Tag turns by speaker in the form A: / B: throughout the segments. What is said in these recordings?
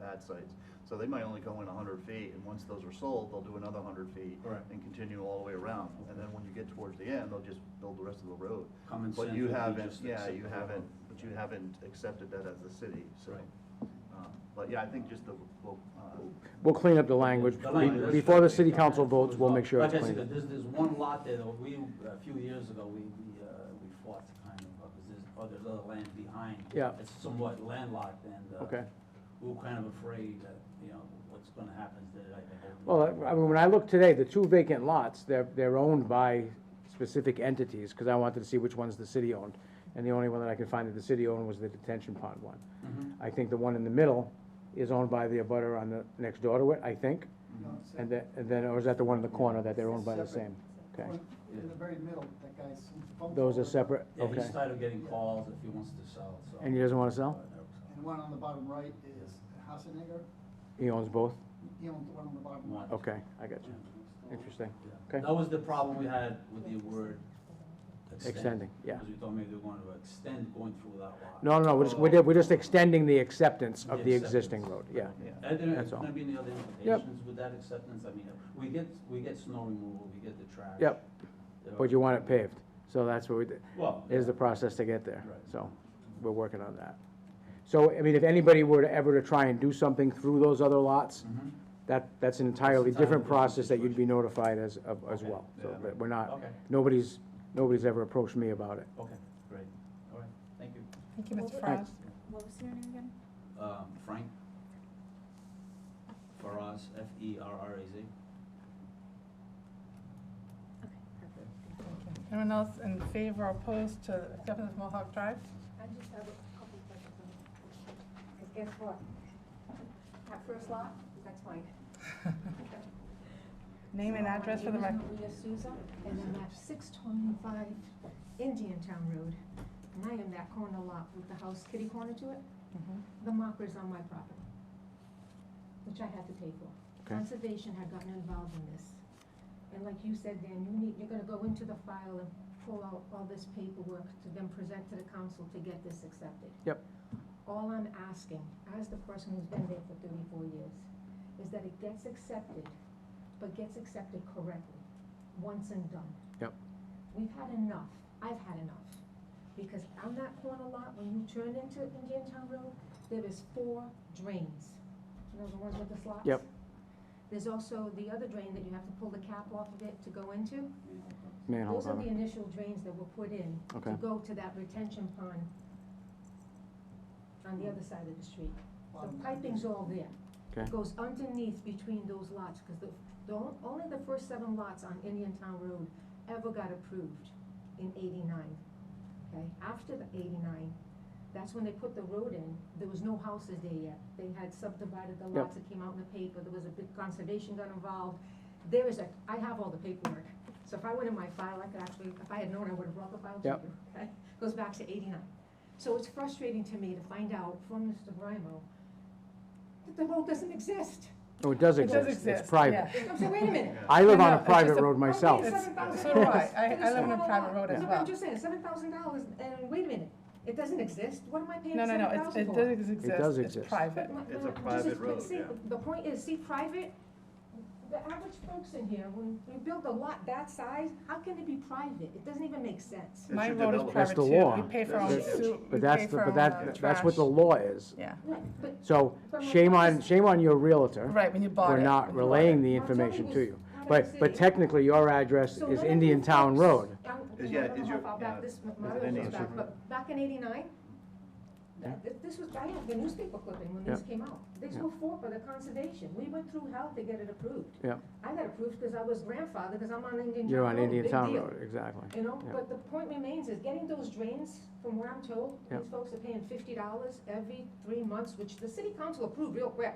A: pad sites. So they might only go in hundred feet, and once those are sold, they'll do another hundred feet.
B: Right.
A: And continue all the way around, and then when you get towards the end, they'll just build the rest of the road.
B: Common
A: But
B: sense
A: you
B: would be
A: haven't,
B: just
A: yeah,
B: accept
A: you
B: the
A: haven't,
B: road.
A: but you haven't accepted that as a city, so.
B: Right.
A: um, But yeah, I think just the, well, uh,
C: We'll clean up the language.
B: The language.
C: Be- Before the city council votes, we'll make sure it's
B: Like I
C: cleaned up.
B: said, there's, there's one lot there, that we, a few years ago, we, we, uh, we fought to kind of, because there's, oh, there's other land behind.
C: Yeah.
B: It's somewhat landlocked and, uh.
C: Okay.
B: We were kind of afraid that, you know, what's gonna happen to that. I think.
C: Well, I I mean, when I looked today, the two vacant lots, they're, they're owned by specific entities, because I wanted to see which ones the city owned. And the only one that I could find that the city owned was the detention pond one.
B: Mhm.
C: I think the one in the middle is owned by the abutter on the, next door to it, I think.
D: No, it's
C: And then, and then, or is that the one in the corner that they're owned by the
D: Separate.
C: same? Okay.
D: In the very middle, that guy's.
C: Those are separate,
B: Yeah, he
C: okay.
B: started getting calls if he wants to sell, so. Uh,
C: And he doesn't want to sell?
D: And one on the bottom right is Hassenegger,
C: He owns both?
D: he owns the one on the bottom
B: One.
D: right.
C: Okay, I got you. Interesting.
B: Yeah.
C: Okay.
B: That was the problem we had with the word extend.
C: Extending, yeah.
B: Because we thought maybe they were going to extend going through that lot.
C: No, no, no, we're just, we're ju- we're just extending the acceptance of the
B: The
C: existing road,
B: acceptance.
C: yeah.
A: yeah.
B: Are there
C: That's all.
B: gonna be any other implications with that acceptance? I mean, we get, we get snow removal, we get the trash.
C: Yep,
B: There
C: but
B: are-
C: you want it paved, so that's what we did.
B: Well,
C: is the process to get there.
B: Right.
C: So, we're working on that. So, I mean, if anybody were to ever to try and do something through those other lots,
B: Mhm.
C: that, that's an entirely different
B: different
C: process that you'd be notified as, of- as
B: Okay.
C: well. So,
A: Yeah.
C: but we're not,
B: Okay,
C: nobody's, nobody's ever approached me about it.
B: okay, great, all right, thank you.
E: Thank you, Mr.
F: What was-
C: Frog.
F: What was your name again?
B: Um, Frank? Faraz, F E R R A Z.
F: Okay, perfect.
E: Anyone else in favor or opposed to acceptance of Mohawk Drive?
F: I just have a couple of questions. Because guess what? That first lot, that's mine.
E: Name and address for the
F: My
E: record.
F: name is Maria Souza, and I'm at six twenty-five Indian Town Road. And I am that corner lot with the house kitty corner to it.
E: Mm-hmm.
F: The marker's on my property, which I had to pay for.
C: Okay.
F: Conservation had gotten involved in this. And like you said, Dan, you need, you're gonna go into the file and pull out all this paperwork to then present to the council to get this accepted.
C: Yep.
F: All I'm asking, as the person who's been there for thirty-four years, is that it gets accepted, but gets accepted correctly, once and done.
C: Yep.
F: We've had enough, I've had enough, because on that corner lot, when you turn into Indian Town Road, there is four drains. You know the ones with the slots?
C: Yep.
F: There's also the other drain that you have to pull the cap off of it to go into.
C: Manhole
F: Those are
C: cover.
F: the initial drains that were put in
C: Okay.
F: to go to that retention pond on the other side of the street. The
D: Bottom right.
F: piping's all there.
C: Okay.
F: It Goes underneath between those lots, because the, the, on- only the first seven lots on Indian Town Road ever got approved in eighty-nine. Okay, after the eighty-nine, that's when they put the road in, there was no houses there yet. They had subdivided the
C: Yep.
F: lots, it came out in the paper, there was a big conservation got involved. There is a, I have all the paperwork, so if I went in my file, I could actually, if I had known, I would have brought the file to you.
C: Yep.
F: Okay, Goes back to eighty-nine. So it's frustrating to me to find out from Mr. Brimo that the road doesn't exist.
C: Oh, it does
E: It does
C: exist,
E: exist.
C: it's private.
E: yeah.
F: I'm saying, wait a minute.
C: I live
E: No,
C: on
E: no,
C: a
E: it's
C: private
E: just a-
C: road myself.
F: It's-
E: It's- So do I. I, I live on a private road as
F: No, but
E: well.
F: I'm just saying, seven thousand dollars, and wait a minute, it doesn't exist, what am I paying
E: No, no,
F: seven
E: no, it's-
F: thousand
E: it
F: for?
E: does exist.
C: does
E: It's
C: exist.
E: private.
F: But my-
A: It's a
F: my- just-
A: private
F: but
A: road,
F: see,
A: yeah.
F: The point is, see, private, the average folks in here, when you build a lot that size, how can it be private? It doesn't even make sense.
A: It
E: My
A: should
E: road is
A: develop.
C: That's
E: private
C: the
E: too.
C: law.
E: We pay for our
A: That's-
E: sewer, we
C: But
E: pay
C: that's, the
E: for
C: but
E: our uh,
C: that, that's what the
E: trash.
C: law is.
E: Yeah,
F: Right, But
C: So, shame on, shame on your realtor
E: right, when you bought it.
C: for not
E: when you bought
C: relaying
E: it.
C: the
F: Well, it's
C: information
F: only
C: to
F: this-
C: you.
F: not
C: But,
F: every
C: but
F: city.
C: technically, your address
F: So
C: is
F: none of
C: Indian
F: you
C: Town
F: folks-
C: Road.
F: I'm-
A: Is-
F: you know,
A: yeah,
F: I don't
A: is
F: know
A: your-
F: how
A: yeah.
F: back this, my
A: Is it
F: other
A: Indian
F: goes back,
A: Town
F: but back in eighty-nine,
C: Yeah.
F: th- this was, I had the newspaper clipping when this came out. These
C: Yeah.
F: were fought by the conservation. We went through hell to get it approved.
C: Yeah.
F: I got approved because I was grandfather, because I'm on Indian Town Road.
C: You're on Indian
F: big
C: Town
F: deal.
C: Road, exactly.
F: You know,
C: Yeah.
F: but the point remains is getting those drains, from what I'm told,
C: Yeah.
F: these folks are paying fifty dollars every three months, which the city council approved real quick.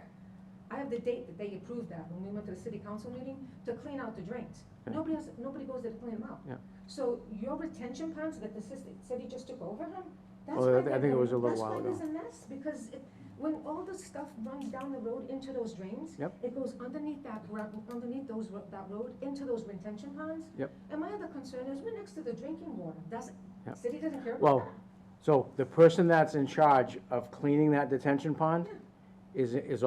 F: I have the date that they approved that, when we went to the city council meeting, to clean out the drains.
C: Yeah.
F: Nobody else, nobody goes there to clean them out.
C: Yeah.
F: So your retention ponds that the city, city just took over, huh? That's
C: Well, I
F: why
C: thi- I
F: they're
C: think it
F: in-
C: was a little while
F: That's why there's a mess, because it, when all the stuff runs down the road into those drains.
C: Yep.
F: It goes underneath that gravel, underneath those, ro- that road, into those retention ponds.
C: Yep.
F: And my other concern is we're next to the drinking water. Does,
C: Yep.
F: city doesn't care about
C: Well,
F: that?
C: so the person that's in charge of cleaning that detention pond is, is